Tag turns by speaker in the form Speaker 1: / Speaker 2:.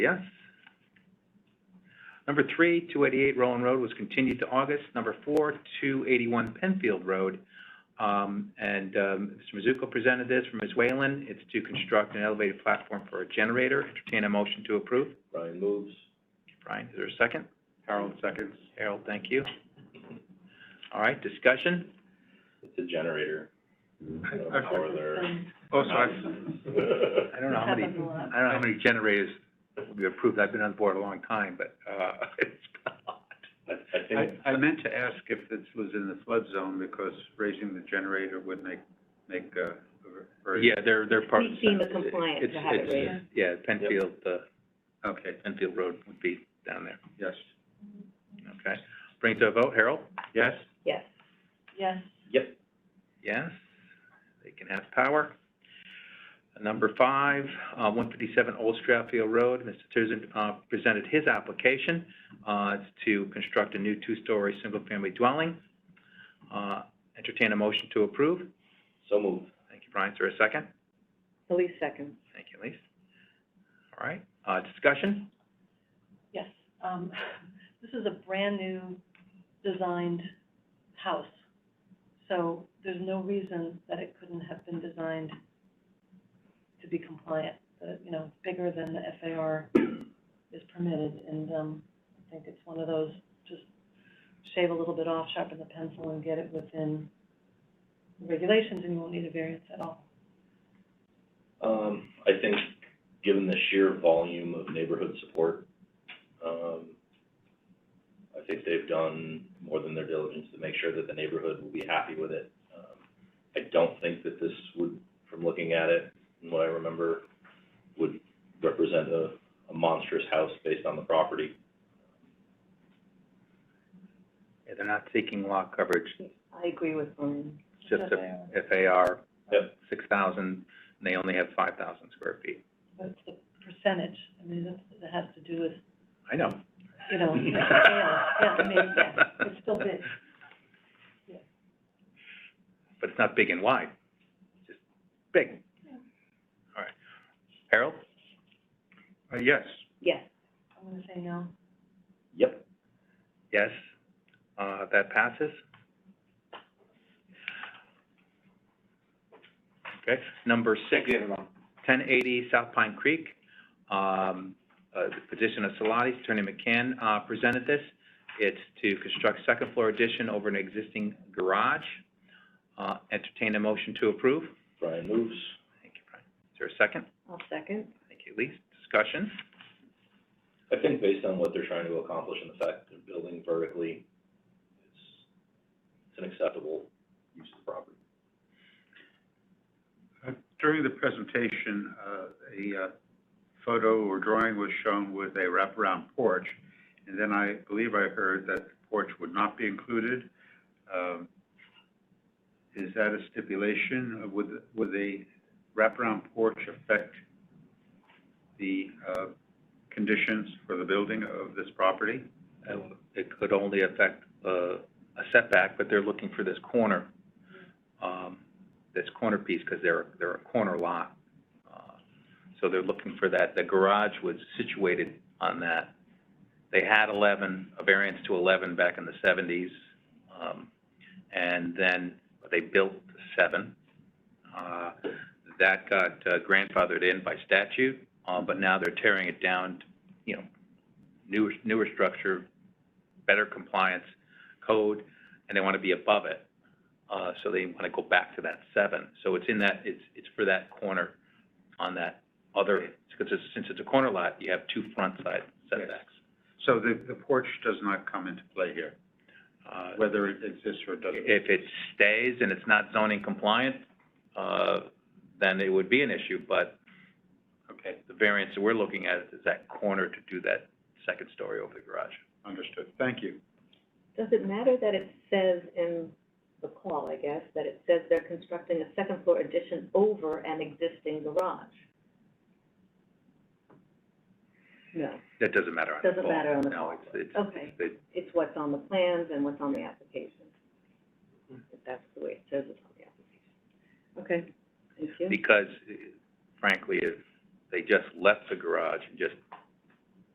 Speaker 1: Yes. Number three, two eighty-eight Rowan Road was continued to August. Number four, two eighty-one Penfield Road. Um, and, um, Mr. Mizuko presented this from Ms. Whalen. It's to construct an elevated platform for a generator. Entertain a motion to approve.
Speaker 2: Brian moves.
Speaker 1: Brian, is there a second?
Speaker 2: Harold seconds.
Speaker 1: Harold, thank you. All right, discussion?
Speaker 2: It's a generator. Or they're.
Speaker 3: Oh, sorry.
Speaker 1: I don't know how many, I don't know how many generators we approved. I've been on board a long time, but, uh, it's been a lot.
Speaker 2: I, I think,
Speaker 3: I, I meant to ask if this was in the flood zone, because raising the generator would make, make, uh, very.
Speaker 1: Yeah, they're, they're part of the.
Speaker 4: We deem it
Speaker 1: sentence.
Speaker 4: compliant to
Speaker 1: It's-
Speaker 4: have it
Speaker 1: it's-
Speaker 4: raised.
Speaker 1: Yeah, Penfield, uh,
Speaker 3: Okay,
Speaker 1: Penfield Road would be down there,
Speaker 3: yes.
Speaker 1: okay? Bring it to a vote, Harold?
Speaker 3: Yes?
Speaker 4: Yes. Yes.
Speaker 2: yep,
Speaker 1: Yes, they can have power. Number five, uh, one fifty-seven Old Stratfield Road, Mr. Tirzan, uh, presented his application, uh, it's to construct a new two-story, single-family dwelling. Uh, entertain a motion to approve.
Speaker 2: so move.
Speaker 1: Thank you, Brian, is there a second?
Speaker 4: Elise seconds.
Speaker 1: Thank you, Elise. All right, uh, discussion?
Speaker 5: Yes, um, this is a brand-new designed house, so there's no reason that it couldn't have been designed to be compliant. The, you know, it's bigger than the FAR is permitted, and, um, I think it's one of those, just shave a little bit off, sharpen the pencil, and get it within the regulations, and you won't need a variance at all.
Speaker 2: Um, I think, given the sheer volume of neighborhood support, um, I think they've done more than their diligence to make sure that the neighborhood will be happy with it. Um, I don't think that this would, from looking at it and what I remember, would represent a, a monstrous house based on the property.
Speaker 1: Yeah, they're not seeking lot coverage,
Speaker 4: I agree with Brian.
Speaker 1: it's just a FAR.
Speaker 2: Yep.
Speaker 1: Six thousand, and they only have five thousand square feet.
Speaker 5: But it's the percentage, I mean, that, that has to do with
Speaker 1: I know.
Speaker 5: you know, scale, yeah, I mean, yeah, it's still big. Yeah.
Speaker 1: But it's not big and wide, it's just big. All right. Harold?
Speaker 3: Uh, yes.
Speaker 4: Yes.
Speaker 5: I'm gonna say no.
Speaker 2: Yep,
Speaker 1: Yes. Uh, that passes. Okay, number six, ten eighty South Pine Creek. Um, uh, the position of Salatis, Attorney McCann, uh, presented this. It's to construct second floor addition over an existing garage. Uh, entertain a motion to approve.
Speaker 2: Brian moves.
Speaker 1: Thank you, Brian. Is there a second?
Speaker 4: I'll second.
Speaker 1: Thank you, Elise. Discussion?
Speaker 2: I think based on what they're trying to accomplish and the fact that they're building vertically, it's, it's an acceptable use of the property.
Speaker 3: Uh, During the presentation, uh, a, uh, photo or drawing was shown with a wraparound porch, and then I believe I heard that the porch would not be included. Um, is that a stipulation? Would, would a wraparound porch affect the, uh, conditions for the building of this property?
Speaker 1: Uh, It could only affect uh, a setback, but they're looking for this corner, um, this corner piece, because they're, they're a corner lot. Uh, So they're looking for that. The garage was situated on that. They had 11, a variance to 11 back in the 70s. um, And then they built seven. Uh, That got uh, grandfathered in by statute, uh, but now they're tearing it down, to, you know, newer, newer structure, better compliance code, and they want to be above it. Uh, so they want to go back to that seven. So it's in that, it's, it's for that corner on that other, because it's, since it's a corner lot, you have two front side setbacks.
Speaker 3: So the, the porch does not come into play here,
Speaker 1: Uh,
Speaker 3: whether it exists or doesn't.
Speaker 1: if it stays and it's not zoning compliant, uh, then it would be an issue, but
Speaker 3: Okay,
Speaker 1: the variance that we're looking at is that corner to do that second story over the garage.
Speaker 3: understood. Thank you.
Speaker 4: Does it matter that it says in the call, I guess, that it says they're constructing a second floor addition over an existing garage? No,
Speaker 1: That doesn't matter on the
Speaker 4: Doesn't
Speaker 1: plan.
Speaker 4: matter on the
Speaker 1: No, it's, it's,
Speaker 4: okay.
Speaker 1: it's-
Speaker 4: It's what's on the plans and what's on the application. If that's the way it says it's on the application. Okay, thank you.
Speaker 1: because eh, frankly, if they just left the garage and just